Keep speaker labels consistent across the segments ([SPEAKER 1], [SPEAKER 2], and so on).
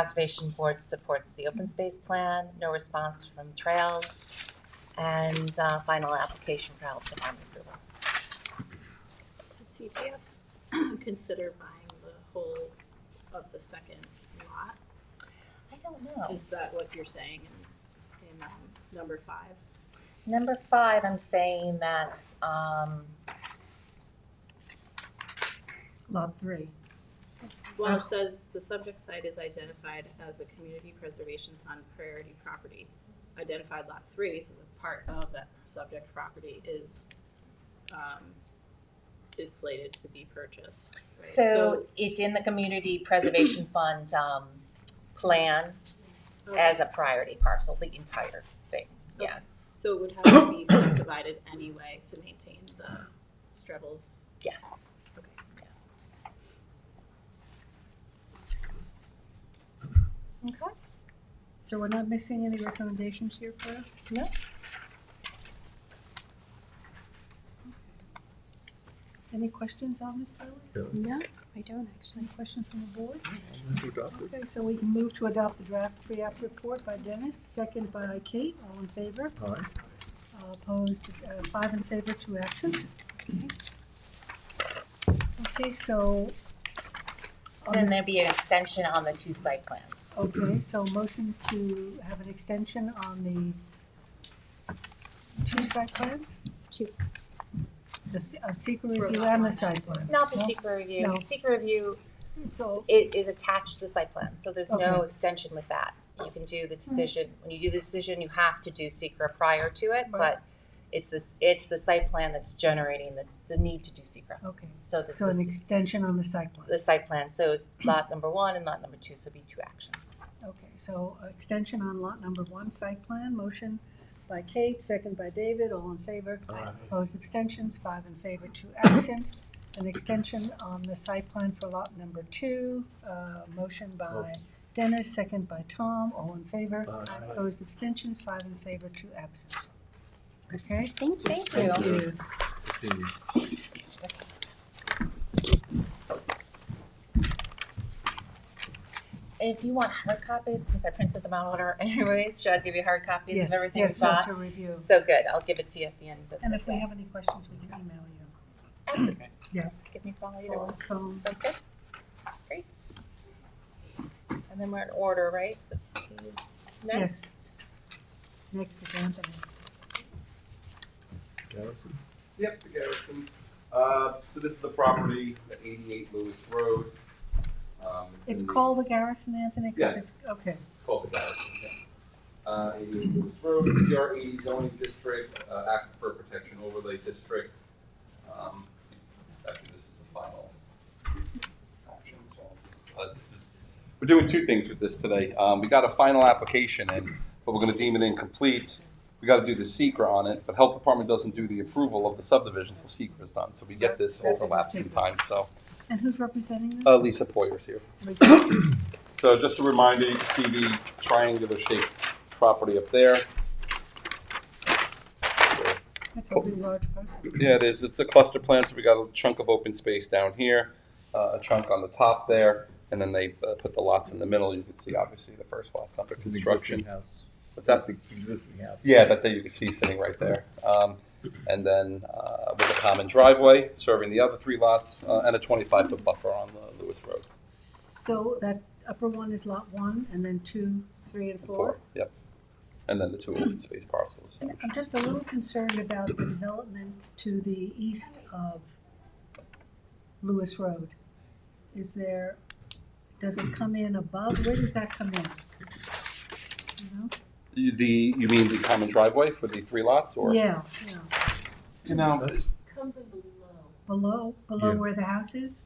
[SPEAKER 1] Conservation Board supports the open space plan, no response from trails, and uh, final application for Hamilton Army approval.
[SPEAKER 2] Did CPF consider buying the whole of the second lot?
[SPEAKER 1] I don't know.
[SPEAKER 2] Is that what you're saying in, in um, number five?
[SPEAKER 1] Number five, I'm saying that's, um,
[SPEAKER 3] Lot three.
[SPEAKER 2] Well,
[SPEAKER 1] Oh.
[SPEAKER 2] it says the subject site is identified as a community preservation fund priority property. Identified lot three, so this part of that subject property is, um, is slated to be purchased. right?
[SPEAKER 1] so it's in the Community Preservation Fund's, um, plan
[SPEAKER 2] So-
[SPEAKER 1] as a priority parcel, the entire thing, yes,
[SPEAKER 2] So it would have to be subdivided anyway to maintain the Strebels.
[SPEAKER 1] yes.
[SPEAKER 2] Okay.
[SPEAKER 1] Okay.
[SPEAKER 3] So we're not missing any recommendations here, Claire?
[SPEAKER 1] No.
[SPEAKER 3] Any questions on this, Claire? No, I don't actually. Any questions on the board? Okay, so we can move to adopt the draft pre-app report by Dennis, second by Kate, all in favor?
[SPEAKER 4] Aye.
[SPEAKER 3] All Opposed, uh, five in favor, two absent. Okay. Okay, so. on
[SPEAKER 1] Then there'd be an extension on the two site plans.
[SPEAKER 3] Okay, so motion to have an extension on the two site plans?
[SPEAKER 1] Two.
[SPEAKER 3] The se- uh, secret review and the site plan.
[SPEAKER 1] Not the
[SPEAKER 3] No?
[SPEAKER 1] secret review.
[SPEAKER 3] No.
[SPEAKER 1] Secret review
[SPEAKER 3] So,
[SPEAKER 1] i- is attached to the site plan, so there's no
[SPEAKER 3] Okay.
[SPEAKER 1] extension with that. You can do the decision, when you do the decision, you have to do secret prior to it, but it's this, it's the site plan that's generating the, the need to do secret.
[SPEAKER 3] okay,
[SPEAKER 1] So this
[SPEAKER 3] so an
[SPEAKER 1] is
[SPEAKER 3] extension on the site plan.
[SPEAKER 1] the site plan, so it's lot number one and lot number two, so it'd be two actions.
[SPEAKER 3] Okay, so uh, extension on lot number one, site plan, motion by Kate, second by David, all in favor.
[SPEAKER 4] Aye.
[SPEAKER 3] Opposed abstentions, five in favor, two absent. An extension on the site plan for lot number two, uh, motion by Dennis, second by Tom, all in favor.
[SPEAKER 4] Aye.
[SPEAKER 3] Opposed abstentions, five in favor, two absent. Okay?
[SPEAKER 1] Thank you.
[SPEAKER 4] Thank you.
[SPEAKER 1] If you want hard copies, since I printed them out order anyways, should I give you hard copies of
[SPEAKER 3] Yes,
[SPEAKER 1] everything we
[SPEAKER 3] yes, so
[SPEAKER 1] got?
[SPEAKER 3] to review.
[SPEAKER 1] So good, I'll give it to you at the end of the day.
[SPEAKER 3] And if we have any questions, we can email you.
[SPEAKER 1] Absolutely.
[SPEAKER 3] Yeah.
[SPEAKER 1] Give me a call either one.
[SPEAKER 3] Phone.
[SPEAKER 1] Sounds good? Great. And then we're in order, right? So who's next?
[SPEAKER 3] Next is Anthony.
[SPEAKER 4] Garrison?
[SPEAKER 5] Yep, the Garrison. Uh, so this is a property, the eighty-eight Lewis Road. Um, in
[SPEAKER 3] It's
[SPEAKER 5] the-
[SPEAKER 3] called the Garrison, Anthony, because
[SPEAKER 5] Yeah.
[SPEAKER 3] it's, okay.
[SPEAKER 5] it's called the Garrison, yeah. Uh, eighty-eight Lewis Road, CR eighty E, zoning district, uh, aquifer protection overlay district. Um, actually, this is the final action, so, uh, this is, we're doing two things with this today. Um, we got a final application in, but we're gonna deem it incomplete. We gotta do the secret on it, but health department doesn't do the approval of the subdivision till secret is done, so we get this overlap sometimes, so.
[SPEAKER 3] And who's representing them?
[SPEAKER 5] Uh, Lisa Poyer's here.
[SPEAKER 3] Lisa.
[SPEAKER 5] So just a reminder, you can see the triangular shaped property up there. So,
[SPEAKER 3] That's a really large person.
[SPEAKER 5] Yeah, it is. It's a cluster plan, so we got a chunk of open space down here, uh, a chunk on the top there, and then they uh, put the lots in the middle. You can see obviously the first lot's under
[SPEAKER 4] It's an existing
[SPEAKER 5] construction.
[SPEAKER 4] house.
[SPEAKER 5] What's that?
[SPEAKER 4] an existing house.
[SPEAKER 5] Yeah, that there you can see sitting right there. Um, and then uh, with a common driveway serving the other three lots uh, and a 25 foot buffer on the Lewis Road.
[SPEAKER 3] So that upper one is lot one, and then two, three, and
[SPEAKER 5] Four.
[SPEAKER 3] four.
[SPEAKER 5] Yep. And then the two open space parcels.
[SPEAKER 3] And I'm just a little concerned about the development to the east of Lewis Road. Is there, does it come in above, where does that come in? You know?
[SPEAKER 5] You- The, you mean the common driveway for the three lots or?
[SPEAKER 3] Yeah, yeah,
[SPEAKER 5] You know,
[SPEAKER 4] That's-
[SPEAKER 2] Comes in below,
[SPEAKER 3] below, below
[SPEAKER 4] Yeah.
[SPEAKER 3] where the house is?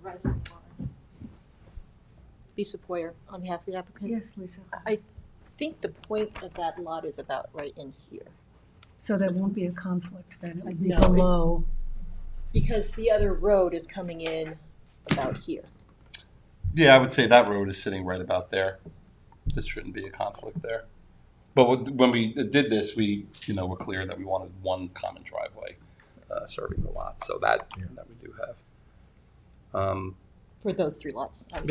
[SPEAKER 2] right in the water.
[SPEAKER 6] Lisa Poyer, on behalf of the applicant.
[SPEAKER 3] Yes, Lisa,
[SPEAKER 6] I think the point of that lot is about right in here,
[SPEAKER 3] so there won't be a conflict then, it would be
[SPEAKER 6] No, it-
[SPEAKER 3] below,
[SPEAKER 6] because the other road is coming in about here.
[SPEAKER 5] yeah, I would say that road is sitting right about there. This shouldn't be a conflict there. But wh- when we did this, we, you know, were clear that we wanted one common driveway uh, serving the lots, so that,
[SPEAKER 4] Yeah.
[SPEAKER 5] that we do have. Um,
[SPEAKER 6] For those three lots, obviously.